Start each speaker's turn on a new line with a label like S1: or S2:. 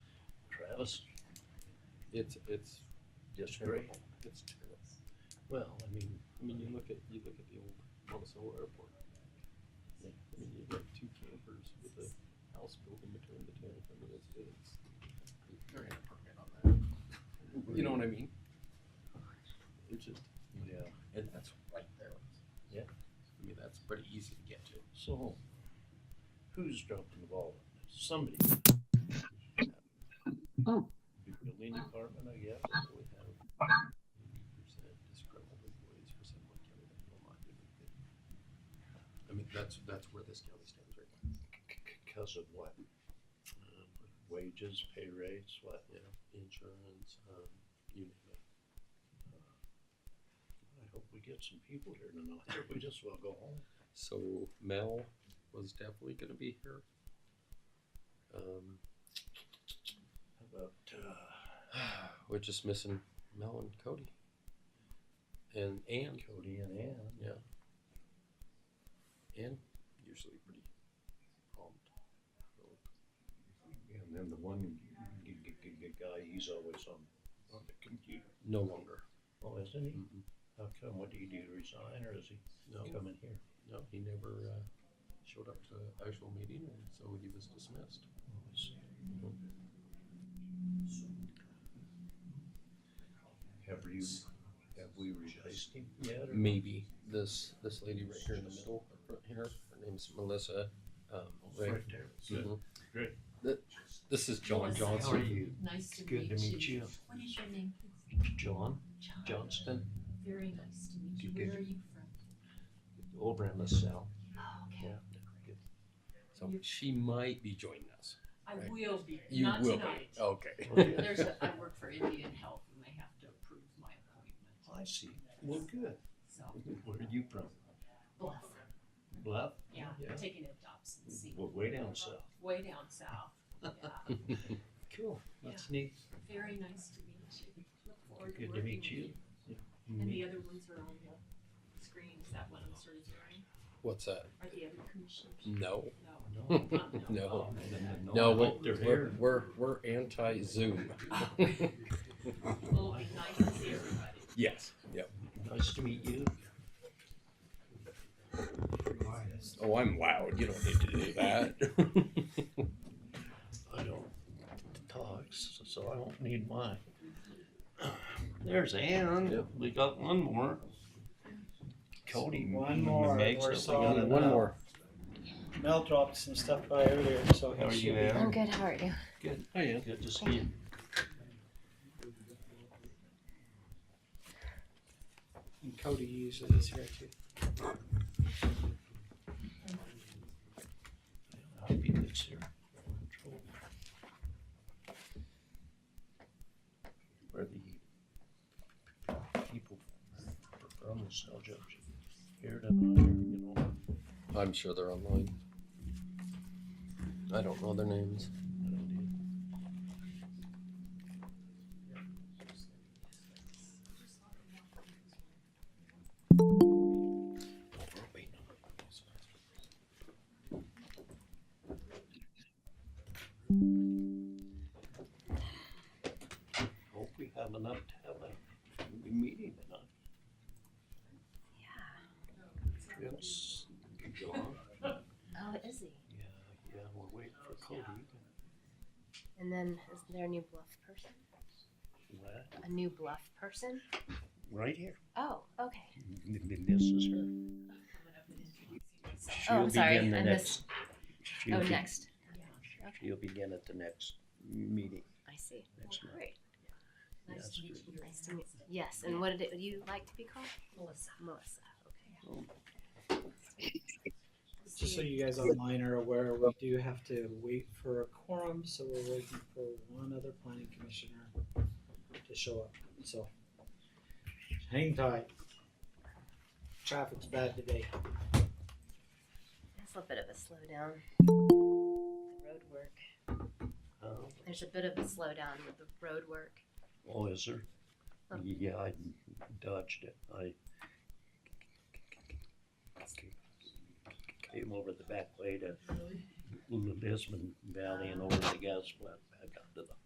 S1: us. It's, it's just terrible. It's terrible. Well, I mean, I mean, you look at, you look at the old Monticello Airport. I mean, you've got two campers with a house building between the two. I mean, it's, it's. They're gonna permit on that. You know what I mean? It's just,
S2: Yeah, and
S1: that's right there.
S2: Yeah.
S1: I mean, that's pretty easy to get to.
S2: so who's dropping the ball? on this? Somebody.
S3: Oh.
S2: The Building department, I guess.
S1: But we have 80% disgruntled employees for San Juan County that will not do anything. I mean, that's, that's where this county stands right now.
S2: Because of what? Um, Wages, pay rates, what?
S1: Yeah, insurance, um, you name it.
S2: I hope we get some people here tonight. We just will go home.
S1: So Mel was definitely gonna be here. Um,
S2: How about, uh,
S1: we're just missing Mel and Cody. And Ann,
S2: Cody and Ann?
S1: yeah. Ann, usually pretty prompt.
S2: And then the one g- g- g- g- guy, he's always on, on the computer.
S1: No longer.
S2: Oh, isn't he?
S1: Mm-mm.
S2: How come? What did he do? Resign or is he
S1: No,
S2: coming here?
S1: no, he never, uh, showed up to the actual meeting, and so he was dismissed.
S2: Oh, I see. Have you, have we replaced him yet? or-
S1: Maybe this, this lady right here in the middle, up front here, her name's Melissa, um, Ray.
S2: Right there. Good.
S1: Mhm.
S2: Great.
S1: Th- This is John
S4: Melissa, how
S2: How are
S1: Johnson.
S2: you?
S4: Nice to meet you.
S2: Good to meet you.
S4: What is your name?
S2: John Johnston,
S4: Very nice to meet you.
S2: Good-
S4: Where are you from?
S2: over in LaSalle.
S4: Oh, okay.
S2: Yeah.
S1: So she might be joining us.
S4: I
S1: Right.
S4: will be,
S1: You
S4: not
S1: will
S4: tonight.
S2: Oh.
S1: be, okay.
S2: Okay.
S4: There's, a- I work for Indian Health and they have to approve my appointment,
S2: I see. Well, good.
S4: so
S2: Where are you from?
S4: bless.
S2: Bluff?
S4: Yeah,
S2: Yeah.
S4: I'm taking a Dobson seat.
S2: Well, way down south.
S4: Way down south. Yeah.
S2: Cool. That's neat.
S4: Very nice to meet you. Look forward to
S2: Good to
S4: working with you.
S2: meet you.
S4: And
S2: Neat.
S4: the other ones are on the screen. Is that what I'm sort of doing?
S1: What's that?
S4: Are the other commissioners?
S1: No,
S4: No.
S2: Mm. No.
S4: not-
S1: No.
S2: I
S1: no,
S2: hope
S1: we're,
S2: they're
S1: we're,
S2: here.
S1: we're, we're anti-Zoom.
S4: Oh, It'll be nice to see everybody.
S1: Yes, yep.
S2: Nice to meet you.
S1: Oh, I'm loud, you don't need to do that.
S2: I don't talk, s- so I don't need mine. There's Ann. We got one more. Cody.
S5: One more,
S2: makes
S5: we're
S2: it. We
S5: solid
S2: got
S1: One more.
S5: Mel dropped some stuff by earlier, so
S2: How
S5: he
S2: are
S5: should
S2: you,
S5: be.
S2: Ann?
S6: I'm Oh, good. How are you?
S2: Good. Hi, Ann. Good to see you.
S5: And Cody usually is here too.
S2: Hope you lives here. Where the people from the cell jobs here tonight, you know,
S1: I'm sure they're online. I don't know their names.
S2: I don't hope we have enough to have a meeting tonight. Yeah. Yes, John,
S6: Oh, is he?
S2: yeah, yeah, we're waiting for Cody.
S6: And then is there a new bluff person?
S2: What?
S6: A new bluff person?
S2: Right here.
S6: Oh, okay.
S2: This is her.
S4: coming up and introducing myself.
S6: Oh,
S2: She'll
S6: I'm sorry,
S2: begin the
S6: I
S2: next-
S6: missed-
S2: she'll
S6: oh,
S2: be-
S6: next.
S2: She'll begin at the next meeting.
S6: I see.
S2: next month.
S6: Great.
S4: Nice to meet you.
S6: Nice to meet you. Yes. And what did it, would you like to be called?
S4: Melissa.
S6: Melissa. Okay.
S5: Just so you guys online are aware, we do have to wait for a quorum, so we're waiting for one other planning commissioner to show up, so. Hang tight. Traffic's bad today.
S6: That's a bit of a slowdown. The road work.
S2: Oh,
S6: There's a bit of a slowdown with the road work.
S2: Oh, is there?
S6: Oh.
S2: Yeah, I dodged it. I came over the back way to Lisbon Valley and over the gas plant back up to the